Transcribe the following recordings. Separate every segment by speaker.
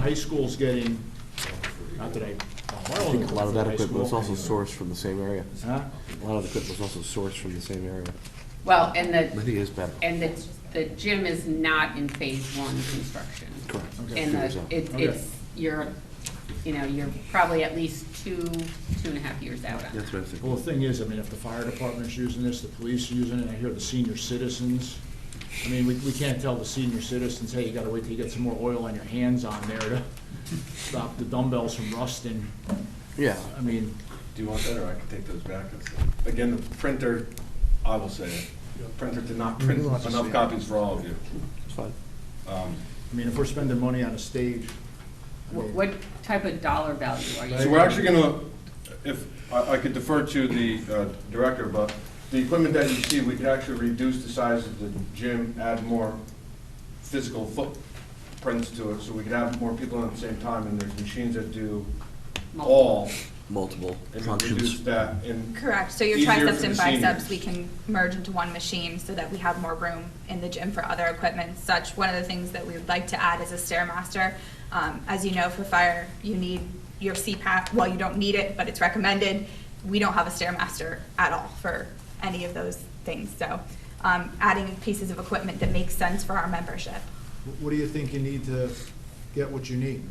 Speaker 1: high school's getting, not that I, I
Speaker 2: I think a lot of that equipment
Speaker 1: is
Speaker 2: was also sourced from the same area.
Speaker 1: Huh?
Speaker 2: A lot of the equipment was also sourced from the same area.
Speaker 3: Well, and
Speaker 2: But
Speaker 3: the,
Speaker 2: he is better.
Speaker 3: and the, the gym is not in phase one construction.
Speaker 2: Correct. Okay.
Speaker 3: And the,
Speaker 2: Okay.
Speaker 3: it, it's, you're, you know, you're probably at least two, two and a half years out on
Speaker 2: That's
Speaker 3: that.
Speaker 2: what I think.
Speaker 1: Well, the thing is, I mean, if the fire department's using this, the police are using it, I hear the senior citizens. I mean, we, we can't tell the senior citizens, hey, you gotta wait till you get some more oil on your hands on there to stop the dumbbells from rusting.
Speaker 2: Yeah.
Speaker 1: I mean,
Speaker 4: Do you want that, or I can take those back? It's- Again, the printer, I will say it, the printer did not print enough copies for all of you.
Speaker 2: It's fine.
Speaker 4: Um,
Speaker 1: I mean, if we're spending money on a stage. I
Speaker 3: What,
Speaker 1: mean-
Speaker 3: what type of dollar value are you?
Speaker 4: So we're actually gonna, if, I, I could defer to the uh, director, but the equipment that you see, we could actually reduce the size of the gym, add more physical footprints to it, so we could have more people at the same time, and there's machines that do all,
Speaker 2: Multiple
Speaker 4: and we reduce
Speaker 2: functions.
Speaker 4: that in
Speaker 5: Correct, so your
Speaker 4: Easier for
Speaker 5: triceps
Speaker 4: the
Speaker 5: and
Speaker 4: seniors.
Speaker 5: biceps, we can merge into one machine so that we have more room in the gym for other equipment such. One of the things that we would like to add is a Stairmaster. Um, as you know, for fire, you need your CPAP, well, you don't need it, but it's recommended. We don't have a Stairmaster at all for any of those things, so, um, adding pieces of equipment that makes sense for our membership.
Speaker 1: What do you think you need to get what you need?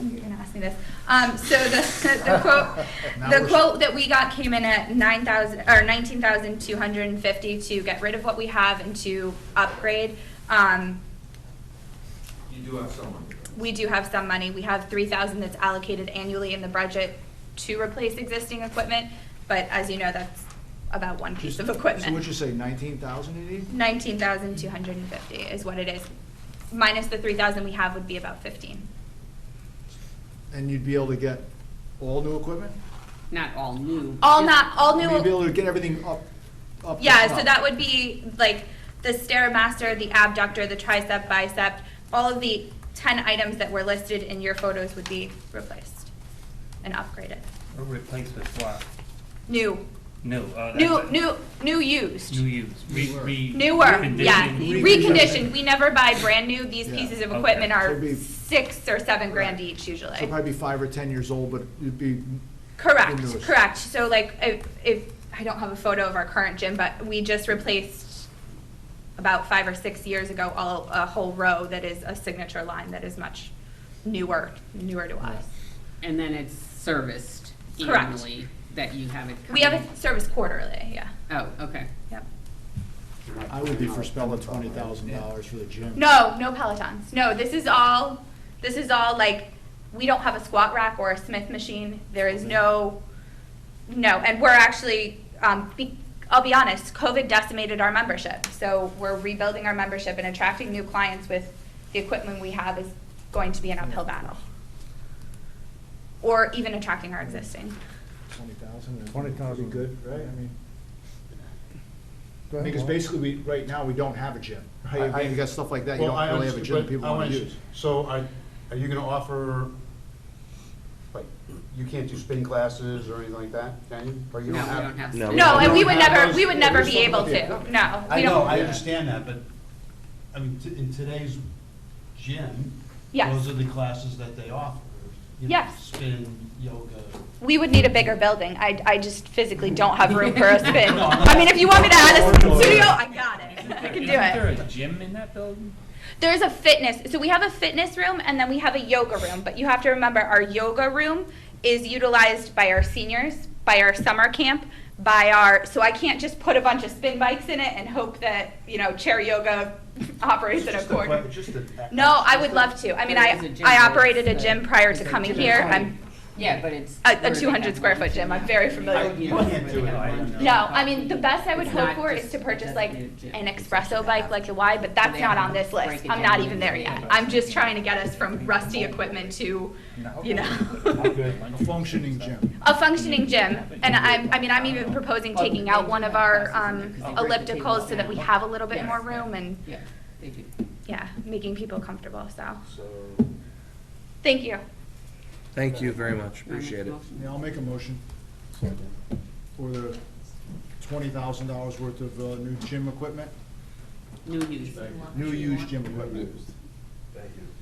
Speaker 5: You're gonna ask me this. Um, so the, the quote,
Speaker 1: Now
Speaker 5: the
Speaker 1: we're-
Speaker 5: quote that we got came in at nine thousand, or nineteen thousand two hundred and fifty to get rid of what we have and to upgrade. Um,
Speaker 4: You do have someone.
Speaker 5: we do have some money. We have three thousand that's allocated annually in the budget to replace existing equipment, but as you know, that's about one piece of
Speaker 1: So
Speaker 5: equipment.
Speaker 1: what'd you say, nineteen thousand you need?
Speaker 5: Nineteen thousand two hundred and fifty is what it is. Minus the three thousand we have would be about fifteen.
Speaker 1: And you'd be able to get all new equipment?
Speaker 3: Not all new.
Speaker 5: All not, all new.
Speaker 1: You'd be able to get everything up, up. to
Speaker 5: Yeah, so
Speaker 1: snuff.
Speaker 5: that would be like the stairmaster, the abductor, the tricep, bicep, all of the ten items that were listed in your photos would be replaced and upgraded.
Speaker 6: Or replace with what?
Speaker 5: New,
Speaker 6: No. uh, that's
Speaker 5: new,
Speaker 6: a-
Speaker 5: new, new
Speaker 6: New
Speaker 5: used.
Speaker 6: use. Re, re.
Speaker 5: Newer, yeah,
Speaker 6: reconditioned.
Speaker 5: reconditioned, we never buy brand new, these
Speaker 1: Yeah.
Speaker 5: pieces of
Speaker 6: Okay.
Speaker 5: equipment
Speaker 1: Should
Speaker 5: are
Speaker 1: be-
Speaker 5: six or seven grand each usually.
Speaker 1: So probably be five or ten years old, but it'd be,
Speaker 5: Correct,
Speaker 1: Indoors.
Speaker 5: correct. So like, if, if, I don't have a photo of our current gym, but we just replaced about five or six years ago, all, a whole row that is a signature line that is much newer, newer to us.
Speaker 3: And then it's serviced
Speaker 5: Correct.
Speaker 3: annually that you have it.
Speaker 5: We have
Speaker 3: coming-
Speaker 5: a service quarterly, yeah,
Speaker 3: Oh, okay.
Speaker 5: yep.
Speaker 1: I would be for spending twenty thousand dollars for the gym.
Speaker 5: No, no Pelotons. No, this is all, this is all like, we don't have a squat rack or a Smith machine. There is no, no, and we're actually, um, be, I'll be honest, COVID decimated our membership. So we're rebuilding our membership and attracting new clients with the equipment we have is going to be an uphill battle. Or even attracting our existing.
Speaker 1: Twenty thousand. Twenty thousand. Good, right, I mean. Because basically, we, right now, we don't have a gym.
Speaker 7: I-
Speaker 1: I mean,
Speaker 7: I-
Speaker 1: you got stuff like that, you
Speaker 7: Well, I
Speaker 1: don't really have a gym
Speaker 7: understand,
Speaker 1: that people
Speaker 7: but I
Speaker 1: wanna
Speaker 7: understand.
Speaker 1: use.
Speaker 7: So are, are you gonna offer, like, you can't do spin classes or anything like that, can you? Or you
Speaker 3: No,
Speaker 7: don't
Speaker 3: we
Speaker 7: have?
Speaker 3: don't have.
Speaker 2: No,
Speaker 3: service.
Speaker 2: we
Speaker 5: No,
Speaker 2: don't
Speaker 5: and we
Speaker 7: have
Speaker 5: would never,
Speaker 7: those-
Speaker 5: we would never
Speaker 7: there's
Speaker 5: be
Speaker 7: something
Speaker 5: able
Speaker 7: about the
Speaker 5: to.
Speaker 7: equipment.
Speaker 5: No,
Speaker 8: I
Speaker 5: we
Speaker 8: know, I
Speaker 5: don't.
Speaker 8: understand that, but, I mean, t- in today's gym,
Speaker 5: Yes.
Speaker 8: those are the classes that they offer. you know,
Speaker 5: Yes.
Speaker 8: Spin, yoga.
Speaker 5: We would need a bigger building. I, I just physically don't have room for a spin.
Speaker 8: No, I'm not-
Speaker 5: I mean, if you want me to add a spin studio, I got it. I can do
Speaker 6: Isn't there
Speaker 5: it.
Speaker 6: a gym in that building?
Speaker 5: There's a fitness, so we have a fitness room and then we have a yoga room, but you have to remember our yoga room is utilized by our seniors, by our summer camp, by our, so I can't just put a bunch of spin bikes in it and hope that, you know, chair yoga operates in a corner. No, I would love to. I mean,
Speaker 3: There is a
Speaker 5: I,
Speaker 3: gym,
Speaker 5: I
Speaker 3: but
Speaker 5: operated a
Speaker 3: it's, uh,
Speaker 5: gym prior
Speaker 3: it's
Speaker 5: to
Speaker 3: a
Speaker 5: coming
Speaker 3: gym
Speaker 5: here.
Speaker 3: party.
Speaker 5: I'm
Speaker 3: Yeah, but it's.
Speaker 5: A- a
Speaker 3: where they have
Speaker 5: 200 square
Speaker 3: one
Speaker 5: foot gym.
Speaker 3: gym.
Speaker 5: I'm very familiar
Speaker 3: You
Speaker 5: with
Speaker 8: it. I
Speaker 3: don't have to
Speaker 8: can't
Speaker 3: have
Speaker 8: do it.
Speaker 3: one gym.
Speaker 5: No, I mean, the best I would
Speaker 3: It's
Speaker 5: hope
Speaker 3: not
Speaker 5: for is
Speaker 3: just
Speaker 5: to
Speaker 3: a
Speaker 5: purchase like
Speaker 3: designated gym.
Speaker 5: an
Speaker 3: It's actually
Speaker 5: espresso
Speaker 3: a
Speaker 5: bike like the Y, but that's
Speaker 3: they
Speaker 5: not
Speaker 3: have
Speaker 5: on
Speaker 3: to
Speaker 5: this
Speaker 3: break
Speaker 5: list.
Speaker 3: it
Speaker 5: I'm
Speaker 3: down
Speaker 5: not even
Speaker 3: into
Speaker 5: there
Speaker 3: the
Speaker 5: yet.
Speaker 3: items.
Speaker 5: I'm just trying to get us from rusty equipment to, you know,
Speaker 1: A functioning gym.
Speaker 5: a functioning gym. And I'm, I mean, I'm even proposing taking out one of our um, ellipticals so that we have a little bit more room and,
Speaker 3: Yeah, they do.
Speaker 5: yeah, making people comfortable, so.
Speaker 7: So,
Speaker 5: Thank you.
Speaker 2: Thank you very much. Appreciate it.
Speaker 3: Motion.
Speaker 1: Yeah, I'll make a motion for the twenty thousand dollars worth of, uh, new gym equipment,
Speaker 3: New use.
Speaker 1: new used gym equipment.
Speaker 4: Thank you.